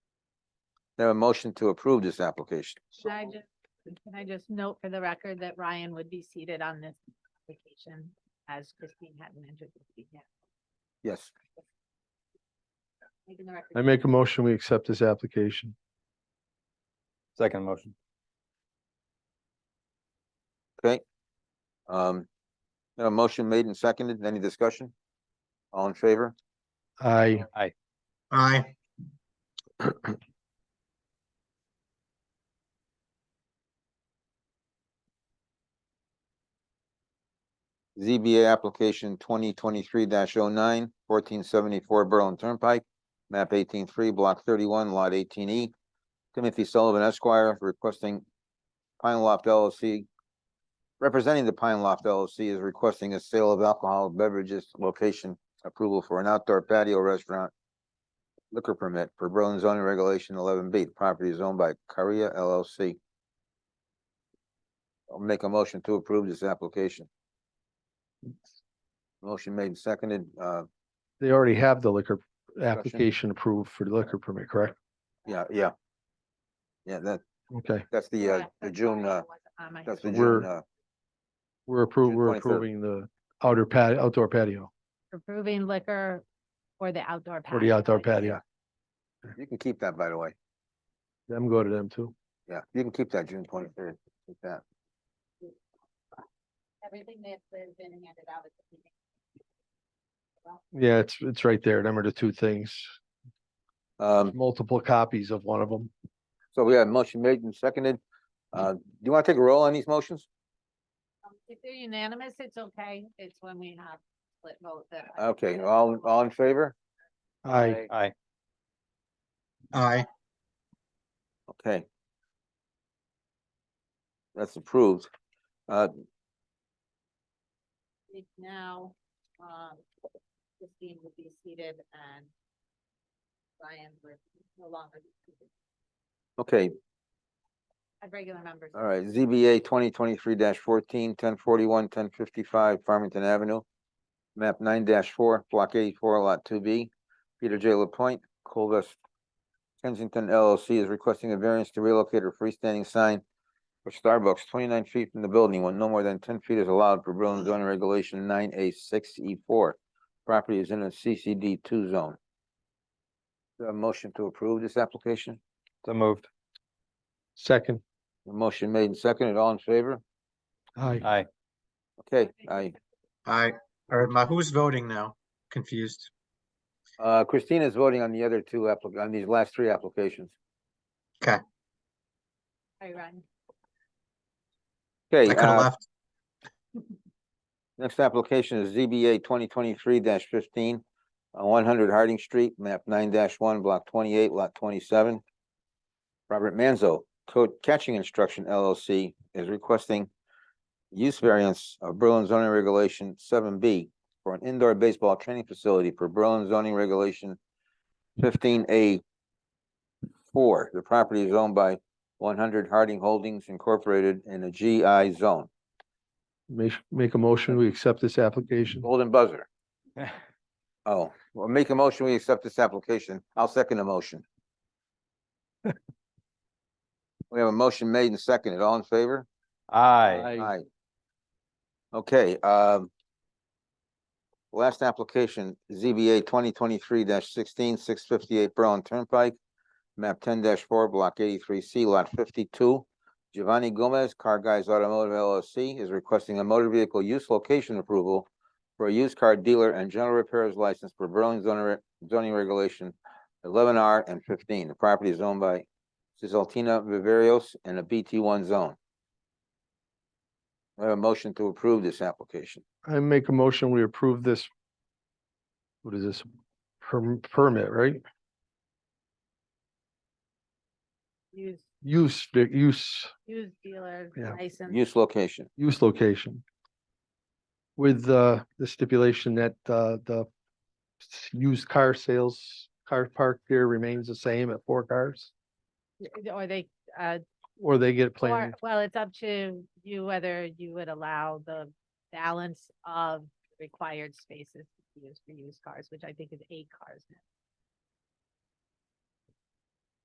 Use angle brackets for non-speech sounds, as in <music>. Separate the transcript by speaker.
Speaker 1: There a motion to approve this application?
Speaker 2: Can I just, can I just note for the record that Ryan would be seated on this application as Christine hadn't entered the seat yet?
Speaker 1: Yes.
Speaker 2: Making the
Speaker 3: I
Speaker 2: record-
Speaker 3: make a motion, we accept this application.
Speaker 4: Second motion.
Speaker 1: Um, there a motion made and seconded. Any discussion? All in favor?
Speaker 3: I,
Speaker 5: aye,
Speaker 1: ZBA application twenty twenty-three oh 9 1474 Berlin Turnpike, map eighteen three, block thirty-one, lot eighteen E. Timothy Sullivan Esquire requesting Pine Loft LLC. Representing the Pine Loft LLC is requesting a sale of alcohol beverages location approval for an outdoor patio restaurant. Liquor permit for Berlin zoning regulation eleven B. The Property is owned by Korea LLC. I'll make a motion to approve this application. Motion made and seconded, uh,
Speaker 3: they already have the liquor application approved for the liquor permit, correct?
Speaker 1: yeah, yeah. Yeah, that,
Speaker 3: Okay,
Speaker 1: that's the, uh,
Speaker 2: Correct,
Speaker 1: the
Speaker 2: that's
Speaker 1: June,
Speaker 2: why I
Speaker 1: uh,
Speaker 2: wasn't on my-
Speaker 1: that's the
Speaker 3: We're-
Speaker 1: June, uh,
Speaker 3: we're approving,
Speaker 1: June
Speaker 3: we're
Speaker 1: 23rd.
Speaker 3: approving the outer pat, outdoor patio
Speaker 2: Approving liquor for the outdoor patio.
Speaker 3: or the outdoor
Speaker 2: I guess.
Speaker 3: patio.
Speaker 1: you can keep that, by the way.
Speaker 3: Them go to them too.
Speaker 1: Yeah, you can keep that June twenty-third, keep that.
Speaker 2: Everything that's been handed out at the meeting.
Speaker 3: Yeah, it's, it's right there. Them are the two things.
Speaker 1: Um,
Speaker 3: Multiple copies of one of them.
Speaker 1: so we have motion made and seconded. Uh, do you want to take a roll on these motions?
Speaker 2: Um, If they're unanimous, it's okay. It's when we have split vote that. I-
Speaker 1: Okay, all, all in favor?
Speaker 3: I,
Speaker 4: Aye.
Speaker 5: aye,
Speaker 1: Okay. That's approved. Uh,
Speaker 2: think Now, um, Christine would be seated and Ryan would no longer be seated.
Speaker 1: okay,
Speaker 2: As regular members.
Speaker 1: All right, ZBA twenty twenty-three 14 fourteen, ten forty-one, ten fifty-five Farmington Avenue. Map nine four, block eighty-four, lot two B. Peter J. Lapointe, Colvest Kensington LLC is requesting a variance to relocate a freestanding sign for Starbucks twenty-nine feet from the building when no more than ten feet is allowed per Berlin zoning regulation nine A six E four. Property is in a CCD two zone. Is there A motion to approve this application?
Speaker 4: So moved.
Speaker 3: second,
Speaker 1: A motion made and seconded, all in favor?
Speaker 3: I,
Speaker 4: Aye. <laughs>
Speaker 1: Okay, I.
Speaker 5: aye. Or my, who's voting now? Confused.
Speaker 1: Uh, Christina's voting on the other two applic- on these last three applications.
Speaker 2: Sorry, Ryan.
Speaker 1: Okay,
Speaker 5: I could have
Speaker 1: uh,
Speaker 5: left.
Speaker 1: next application is ZBA twenty twenty-three fifteen. Uh, one hundred Harding Street, map nine one, block twenty-eight, lot twenty-seven. Robert Manzo, Code Catching Instruction LLC is requesting use variance of Berlin zoning regulation seven B for an indoor baseball training facility per Berlin zoning regulation fifteen A four. The property is owned by one hundred Harding Holdings Incorporated in a GI zone.
Speaker 3: make, make a motion, we accept this application.
Speaker 1: Golden buzzer. Oh, well, make a motion, we accept this application. I'll second the motion. We have a motion made and seconded. All in favor?
Speaker 4: Aye.
Speaker 1: Aye. Okay, um. Last application, ZBA twenty twenty-three 16 658 Berlin Turnpike. Map ten four, block eighty-three C, lot fifty-two. Giovanni Gomez, Car Guys Automotive LLC is requesting a motor vehicle use location approval. For a used car dealer and general repairs license for Berlin zoning, re- zoning regulation eleven R and fifteen. The property is owned by Cisaltina Viverios in a BT one zone. I have a motion to approve this application.
Speaker 3: I make a motion, we approve this. What is this? Perm- Permit, right?
Speaker 2: Use,
Speaker 3: Use, the use,
Speaker 2: use dealer
Speaker 3: Yeah.
Speaker 2: license.
Speaker 1: Use location.
Speaker 3: use location. With uh, the stipulation that uh, the s- used car sales, car park there remains the same at four cars?
Speaker 2: Or they, uh,
Speaker 3: Or they get
Speaker 2: or,
Speaker 3: planning,
Speaker 2: well, it's up to you whether you would allow the balance of required spaces to be used for used cars, which I think is eight cars. now.